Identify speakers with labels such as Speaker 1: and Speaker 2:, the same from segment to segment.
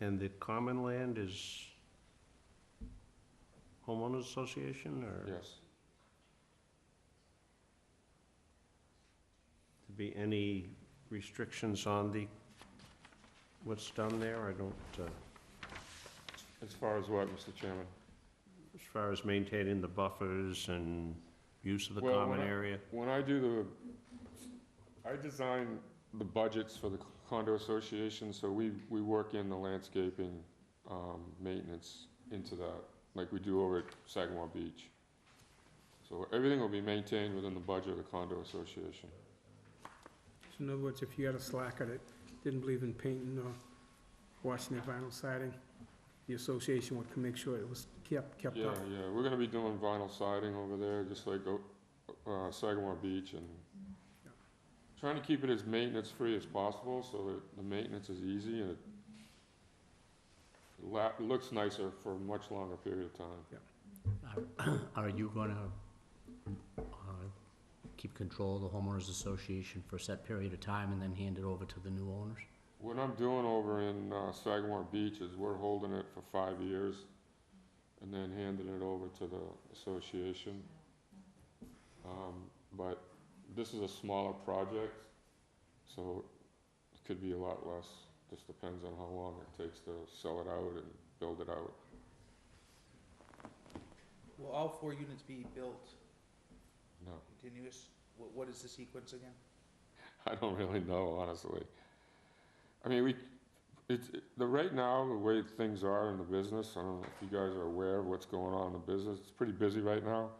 Speaker 1: And the common land is homeowners association or?
Speaker 2: Yes.
Speaker 1: to be any restrictions on the, what's done there? I don't, uh,
Speaker 2: As far as what, Mr. Chairman?
Speaker 1: as far as maintaining the buffers and use of the
Speaker 2: Well, when
Speaker 1: common
Speaker 2: I-
Speaker 1: area?
Speaker 2: When I do the, I design the budgets for the condo association, so we, we work in the landscaping, um, maintenance into that, like we do over at Sagamore Beach. So everything will be maintained within the budget of the condo association.
Speaker 3: So in other words, if you had a slacker that didn't believe in painting or washing their vinyl siding, the association would make sure it was kept, kept
Speaker 2: Yeah,
Speaker 3: up.
Speaker 2: yeah, we're gonna be doing vinyl siding over there, just like, o- uh, Sagamore Beach and trying to keep it as maintenance-free as possible, so that the maintenance is easy and it la- looks nicer for a much longer period of time.
Speaker 4: Are- Are you gonna, uh, keep control of the homeowners association for a set period of time and then hand it over to the new owners?
Speaker 2: What I'm doing over in, uh, Sagamore Beach is we're holding it for five years and then handing it over to the association. Um, but this is a smaller project, so it could be a lot less. Just depends on how long it takes to sell it out and build it out.
Speaker 5: Will all four units be built
Speaker 2: No,
Speaker 5: continuous? What, what is the sequence again?
Speaker 2: I don't really know, honestly. I mean, we, it's, the, right now, the way things are in the business, I don't know if you guys are aware of what's going on in the business, it's pretty busy right now.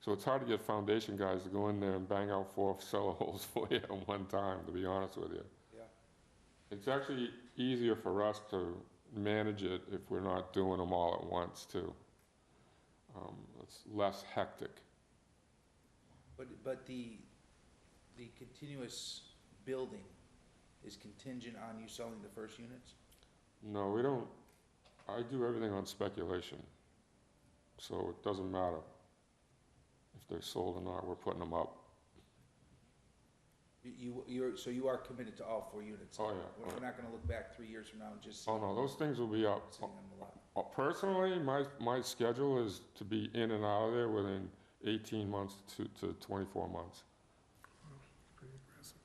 Speaker 2: So it's hard to get foundation guys to go in there and bang out four cellar holes for you at one time, to be honest with you.
Speaker 5: Yeah.
Speaker 2: It's actually easier for us to manage it if we're not doing them all at once, too. Um, it's less hectic.
Speaker 5: But, but the, the continuous building is contingent on you selling the first units?
Speaker 2: No, we don't, I do everything on speculation, so it doesn't matter if they're sold or not, we're putting them up.
Speaker 5: You- You, you're, so you are committed to all four units?
Speaker 2: Oh, yeah,
Speaker 5: We're-
Speaker 2: oh,
Speaker 5: We're not gonna look back three years from now and just see
Speaker 2: Oh, no, those things will be up.
Speaker 5: what's sitting on the lot?
Speaker 2: Uh, Personally, my, my schedule is to be in and out of there within eighteen months to, to twenty-four months.
Speaker 3: Pretty aggressive.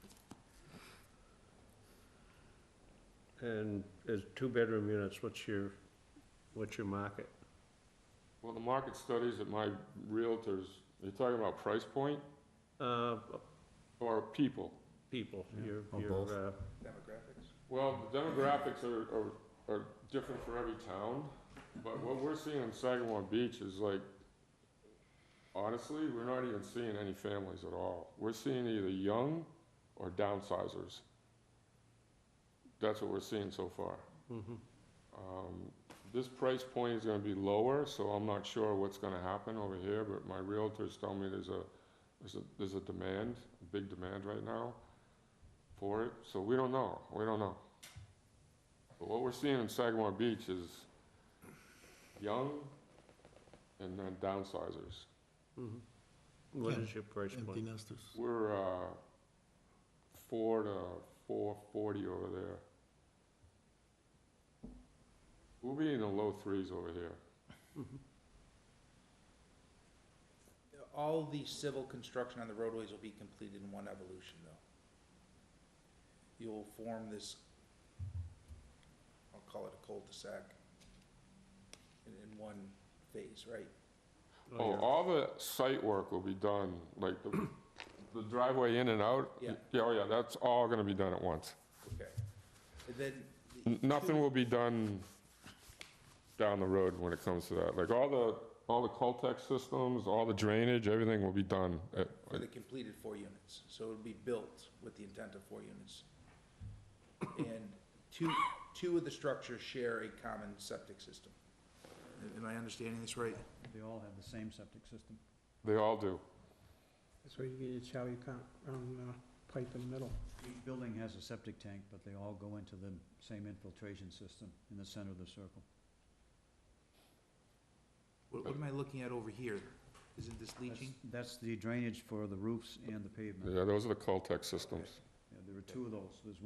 Speaker 1: And as two-bedroom units, what's your, what's your market?
Speaker 2: Well, the market studies that my realtors, you're talking about price point
Speaker 1: Uh,
Speaker 2: or people?
Speaker 1: people,
Speaker 4: Yeah,
Speaker 1: your,
Speaker 4: or both.
Speaker 1: your, uh,
Speaker 5: Demographics?
Speaker 2: Well, the demographics are, are, are different for every town, but what we're seeing in Sagamore Beach is like, honestly, we're not even seeing any families at all. We're seeing either young or downsizers. That's what we're seeing so far.
Speaker 1: mhm.
Speaker 2: Um, This price point is gonna be lower, so I'm not sure what's gonna happen over here, but my realtors tell me there's a, there's a, there's a demand, a big demand right now for it, so we don't know, we don't know. But what we're seeing in Sagamore Beach is young and then downsizers.
Speaker 1: mhm. What is your price point?
Speaker 6: nesters.
Speaker 2: We're, uh, four to four forty over there. We'll be in the low threes over here.
Speaker 5: All the civil construction on the roadways will be completed in one evolution, though. You'll form this, I'll call it a cul-de-sac, in, in one phase, right?
Speaker 2: Oh,
Speaker 1: yeah.
Speaker 2: all the site work will be done, like the the driveway in and out?
Speaker 5: Yeah.
Speaker 2: oh yeah, that's all gonna be done at once.
Speaker 5: Okay. And then. the
Speaker 2: N- Nothing
Speaker 5: two-
Speaker 2: will be done down the road when it comes to that. Like all the, all the Coltex systems, all the drainage, everything will be done at,
Speaker 5: For the completed four units, so it'll be built with the intent of four units. And two, two of the structures share a common septic system. Am I understanding this right?
Speaker 7: They all have the same septic system.
Speaker 2: they all do.
Speaker 3: That's where you get your Charlie count, round, uh, pipe in the middle.
Speaker 7: Each building has a septic tank, but they all go into the same infiltration system in the center of the circle.
Speaker 5: What, what am I looking at over here? Isn't this
Speaker 7: That's-
Speaker 5: leaching?
Speaker 7: That's the drainage for the roofs and the pavement.
Speaker 2: Yeah, those are the Coltex systems.
Speaker 7: Yeah, There are two of those. There's